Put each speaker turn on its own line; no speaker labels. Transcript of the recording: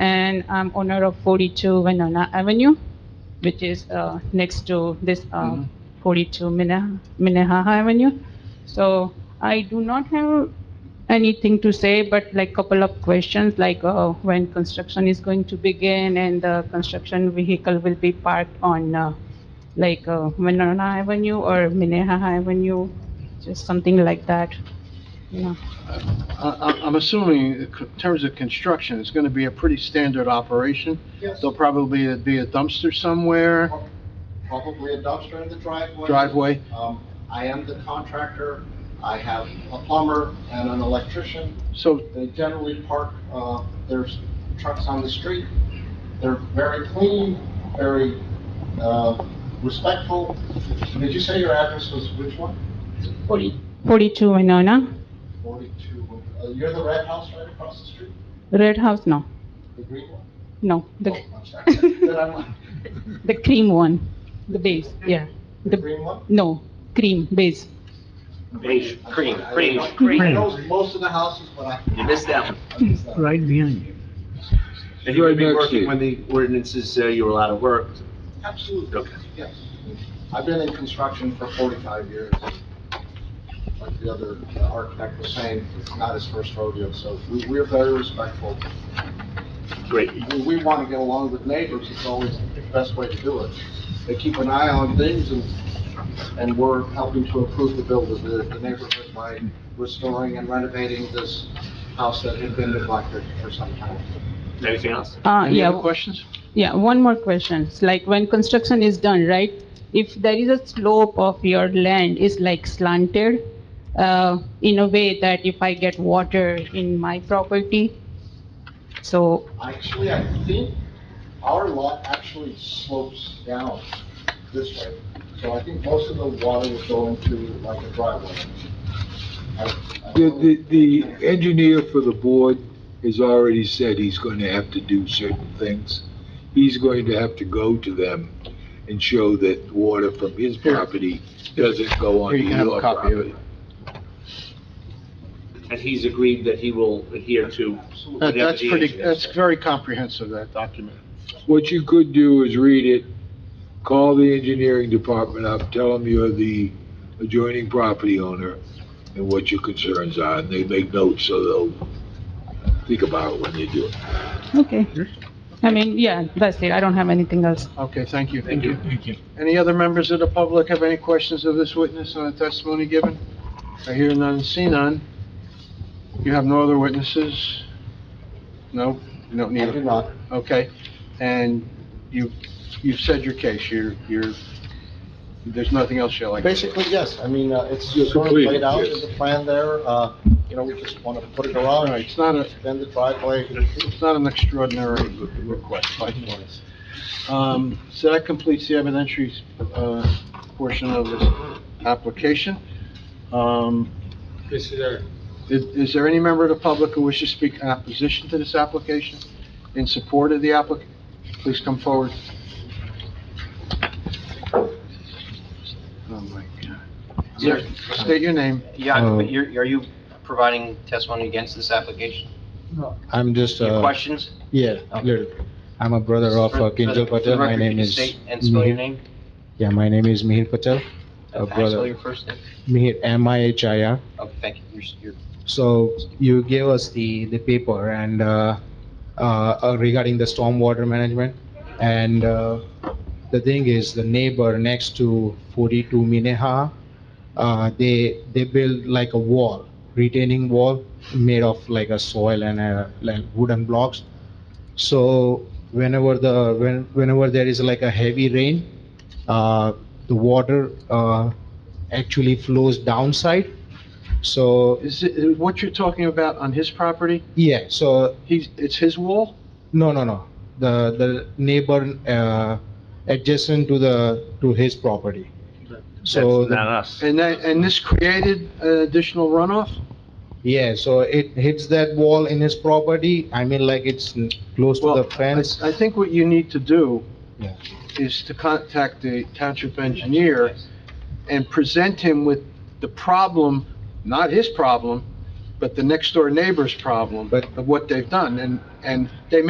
and I'm owner of 42 Winona Avenue, which is uh, next to this uh,
Mhm.
42 Minne- Minnehaha Avenue. So I do not have anything to say, but like couple of questions, like uh, when construction is going to begin and the construction vehicle will be parked on uh, like uh, Winona Avenue or Minnehaha Avenue, just something like that, you know.
I- I- I'm assuming in c- terms of construction, it's going to be a pretty standard operation.
Yes,
There'll probably be a dumpster somewhere,
probably a dumpster in the driveway.
driveway.
Um, I am the contractor, I have a plumber and an electrician.
So,
They generally park, uh, their trucks on the street. They're very clean, very, uh, respectful. Did you say your address was which one?
42 Winona,
Forty-two, uh, you're the red house right across the street,
Red House, no,
the green one?
no, the
Oh, I'm sorry. Then I'm on-
The cream one, the base, yeah.
The
The,
green one?
no, cream, base.
Beige, cream, cream.
I know most of the houses, but I.
You missed that one.
I missed that one.
right behind you.
And you would be
Right next to
working
you.
when the ordinances say you were allowed to work.
Absolutely.
Okay.
Yes. I've been in construction for 45 years. Like the other architect was saying, it's not his first rodeo, so we- we're very respectful.
Great.
We- We want to get along with neighbors, it's always the best way to do it. They keep an eye on things, and and we're helping to improve the build of the the neighborhood by restoring and renovating this house that had been neglected for some time.
Anything else?
Uh,
any other
yeah,
questions?
yeah, one more question. It's Like when construction is done, right? If there is a slope of your land is like slanted, uh, in a way that if I get water in my property, so,
Actually, I think our lot actually slopes down this way, so I think most of the water would go into like a driveway. I- I
The,
don't-
the, the engineer for the board has already said he's going to have to do certain things. He's going to have to go to them and show that water from his property doesn't go
Here,
onto
you can have a
your
copy of
property.
it.
And he's agreed that he will adhere to,
That-
Absolutely.
Yeah,
Uh, That's
the
pretty,
agent.
that's very comprehensive, that document.
What you could do is read it, call the engineering department up, tell them you're the adjoining property owner and what your concerns are, and they make notes, so they'll think about it when they do it.
okay.
Hmm.
I mean, yeah, that's it. I don't have anything else.
Okay, thank you.
Thank you.
Thank you.
Any other members of the public have any questions of this witness on the testimony given? I hear none, see none. You have no other witnesses? No, you don't need
I
a
do not,
Okay, and you, you've said your case, you're, you're, there's nothing else you're like.
basically, yes, I mean, uh, it's
You're
sort of
complete,
laid out
yes.
in the plan there, uh, you know, we just want to put a
All right,
garage,
it's not a,
then the driveway.
it's not an extraordinary request, by the way. Um, so that completes the evidentiary, uh, portion of this application. Um,
This is our
is, is there any member of the public who wishes to speak in opposition to this application, in support of the applicant? Please come forward. Oh, my God. Sir, State your name.
Yeah,
Uh,
but you're, are you providing testimony against this application?
I'm just,
Your
uh,
questions?
yeah, little. I'm a brother of uh, Kinjal
For the
Patel. My
record, could
name
you
is.
state And spell your
Mihir-
name?
Yeah, my name is Mihir Patel. A
Okay, I spell
uh, brother.
your first name.
Mihir, M-I-H-I-R.
Okay, thank you. You're s- You're,
So you gave us the, the paper and, uh, uh, uh, regarding the stormwater management. And, uh, the thing is, the neighbor next to forty-two Mineha, uh, they, they built like a wall, retaining wall made of like a soil and, uh, like wooden blocks. So whenever the, when, whenever there is like a heavy rain, uh, the water, uh, actually flows downside. So
Is it, what you're talking about on his property,
yeah, so,
he's, it's his wall?
no, no, no. The, the neighbor, uh, adjacent to the, to his property. So,
that's not us.
And that, and this created uh, additional runoff?
yeah, so it hits that wall in his property. I mean, like it's n- close to
Well,
the
I,
fence.
I think what you need to do
Yeah.
is to contact the township engineer and present him with the problem, not his problem, but the next door neighbor's problem
But-
of what they've done, and, and they